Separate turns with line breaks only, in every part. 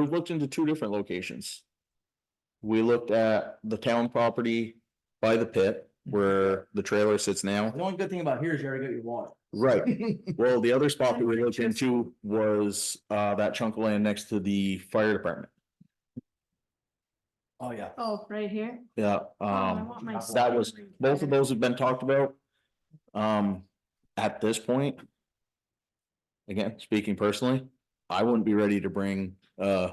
we've looked into two different locations. We looked at the town property by the pit where the trailer sits now.
The only good thing about here is you already got your water.
Right, well, the other spot that we looked into was uh that chunk of land next to the fire department.
Oh, yeah.
Oh, right here?
Yeah,
Oh, I
um,
want my
that was,
strawberry
both
better.
of those have been talked about. Um, at this point. Again, speaking personally, I wouldn't be ready to bring uh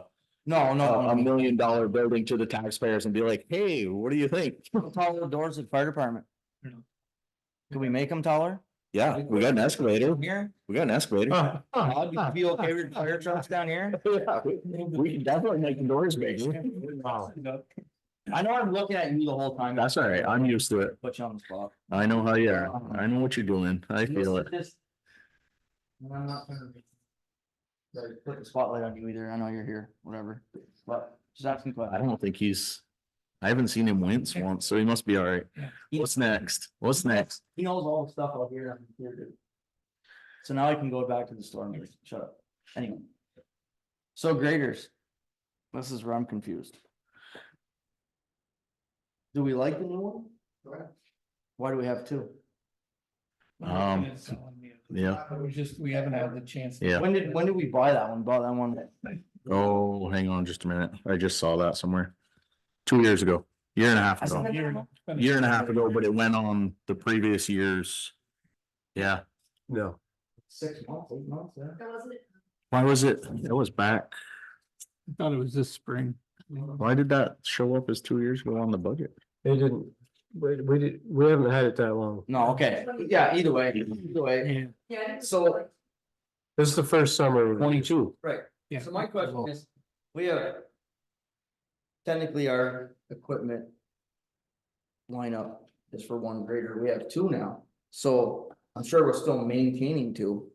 No,
a
no,
a
I'm
million dollar building to the taxpayers and be like, hey, what do you think?
taller doors at fire department. Can we make them taller?
Yeah, we got an escalator,
Here,
we got an escalator.
I'd be- be okay with fire trucks down here.
Yeah, we- We can definitely make the doors bigger.
I know I'm looking at you the whole time.
That's all right, I'm used to it.
Put you on the spot.
I know how you are. I know what you're doing. I feel it.
Just- And I'm not gonna be- like, uh, Put the spotlight on you either. I know you're here, whatever, but just asking
I
questions.
don't think he's, I haven't seen him wince once, so he must be all right. What's next? What's next?
He knows all the stuff out here. and I'm here too. So now I can go back to the store and just shut up. Anyway. So graders. This is where I'm confused. Do we like the new one? Why do we have two?
Um, yeah.
We just, we haven't had the chance.
Yeah.
When did, when did we buy that one? Bought that one?
Oh, hang on just a minute. I just saw that somewhere. Two years ago, year and a half
I saw
ago,
that-
Year-
year and a half ago, but it went on the previous years. Yeah,
No,
Six months, eight months, yeah.
That wasn't-
why was it? It was back.
Thought it was this spring.
Why did that show up as two years ago on the budget?
they didn't, we, we did, we haven't had it that long.
No, okay. Yeah, either way, either way.
Yeah.
Yeah. I didn't
So-
like-
This is the first summer.
Twenty-two.
Right.
Yeah.
So my question is, we have. Technically, our equipment. Lineup is for one grader, we have two now, so I'm sure we're still maintaining two.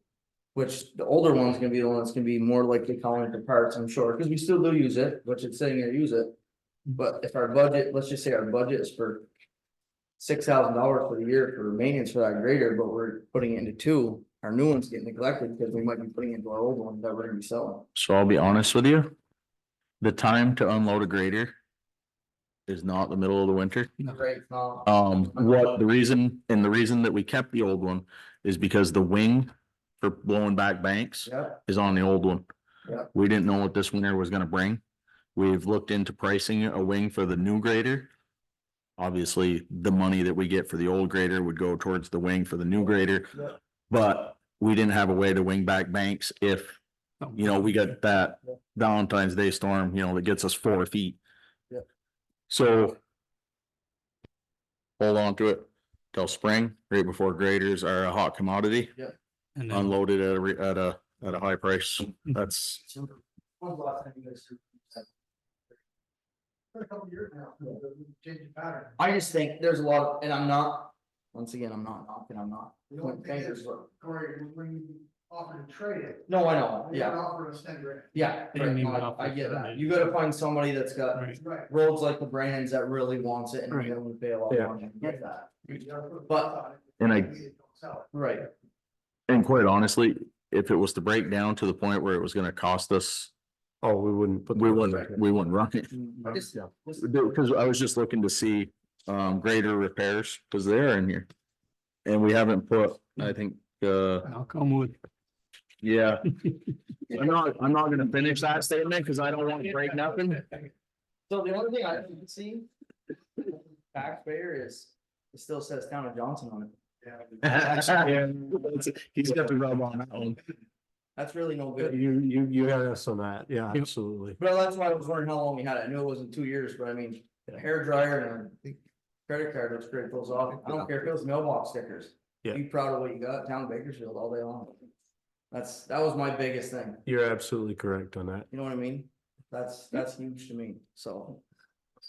Which the older one's gonna be the one that's gonna be more likely calling for parts, I'm sure, because we still do use it, which it's sitting there, use it. But if our budget, let's just say our budget is for. Six thousand dollars for the year for maintenance for that grader, but we're putting it into two, our new ones get neglected because we might be putting into our old one that we're gonna be selling.
So I'll be honest with you. The time to unload a grader is not the middle of the winter.
Right, now,
Uh,
Um, what the reason, and the reason that we kept the old one is because the wing for blowing back banks
yeah,
is on the old one.
Yeah.
We didn't know what this winter was gonna bring. We've looked into pricing a wing for the new grader. Obviously, the money that we get for the old grader would go towards the wing for the new grader.
Yeah.
But we didn't have a way to wing back banks if
Oh.
you know, we got that
Yeah.
Valentine's Day storm, you know, that gets us four feet.
Yeah.
So. Hold on to it till spring, right before graders are a hot commodity,
And then-
unloaded at a, re- at a, at a high price. That's,
So, when's the last time you guys served?
For a couple of years now, but we changed the pattern.
I just think there's a lot, of- and I'm not, once again, I'm not knocking, I'm not.
The only
pointing
thing
fingers,
is-
but-
Corey, when you offered to trade it.
No, I know,
they
yeah,
Offered us ten grand.
yeah,
They
right,
didn't
no,
even
I-
offer
I get
it.
that, you gotta find somebody that's got
Right. Right.
roads like the Brandons that really wants it and
Right.
willing to pay a lot
Yeah.
of money, I get that,
But.
And I-
right?
and quite honestly, if it was to break down to the point where it was gonna cost us,
Oh, we wouldn't. put
we
that
wouldn't,
back.
we wouldn't run it.
I just- just-
Because I was just looking to see, um, greater repairs, because they're in here. And we haven't put, I think, uh,
I'll come with.
yeah, I'm not, I'm not gonna finish that statement because I don't want to break nothing.
So the only thing I can see. Taxpayer is, it still says town of Johnson on it,
He's got the rub on that one.
that's really no good.
You, you, you had us on that, yeah,
Yep.
absolutely.
But that's why I was wondering how long we had it. I knew it wasn't two years, but I mean, a hair dryer and a credit card looks great, those off. I don't care if it was mailbox stickers.
Yeah.
Be proud of what you got, town of Bakersfield all day long. That's, that was my biggest thing.
You're absolutely correct on that.
You know what I mean? That's, that's huge to me, so.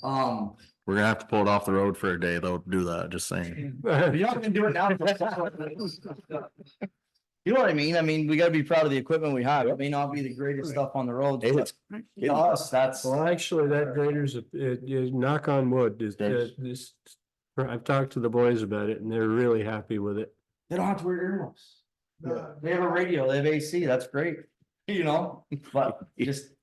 Um,
We're gonna have to pull it off the road for a day though, to do that, just saying.
you're not gonna do it now. You know what I mean? I mean, we gotta be proud of the equipment we have. It may not be the greatest stuff on the road.
Hey,
but
it's-
To us, that's.
Well, actually, that grader's, a- it, you knock on wood, is
Thanks.
that this, I've talked to the boys about it and they're really happy with it.
They don't have to wear earmuffs. They have a radio, they have AC, that's great, you know, but you just,